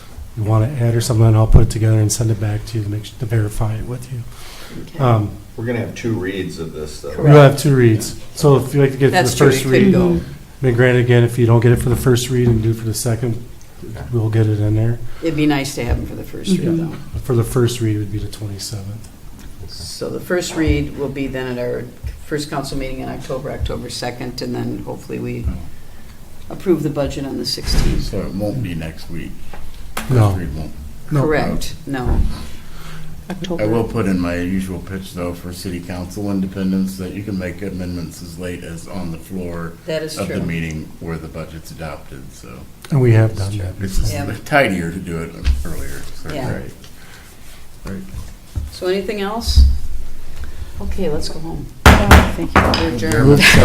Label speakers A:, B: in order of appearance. A: you want to add or something, and I'll put it together and send it back to you to make, su- to verify it with you.
B: Okay.
A: Um,
C: We're gonna have two reads of this, though.
A: You'll have two reads, so if you like to get it for
B: That's
A: the
B: true, it
A: first
B: could
A: read,
B: go.
A: then granted, again, if you don't get it for the first read and do it for the second, we'll get it in there.
B: It'd be nice to have them for the first read,
A: Mhm.
B: though.
A: For the first read would be the 27th.
B: So the first read will be then at our first council meeting in October, October 2nd, and then hopefully we approve the budget on the 16th.
D: So it won't be next week.
A: No.
D: Next week won't.
A: No.
B: Correct, no.
D: I will put in my usual pitch, though, for city council independence, that you can make amendments as late as on the floor
B: That is
D: of the
B: true.
D: meeting where the budget's adopted, so.
A: And we have done that.
D: It's just
B: Yeah.
D: tidier to do it earlier. so-
B: Yeah.
D: Right. Right.
B: So anything else? Okay, let's go home. Thank you. We're adjourned.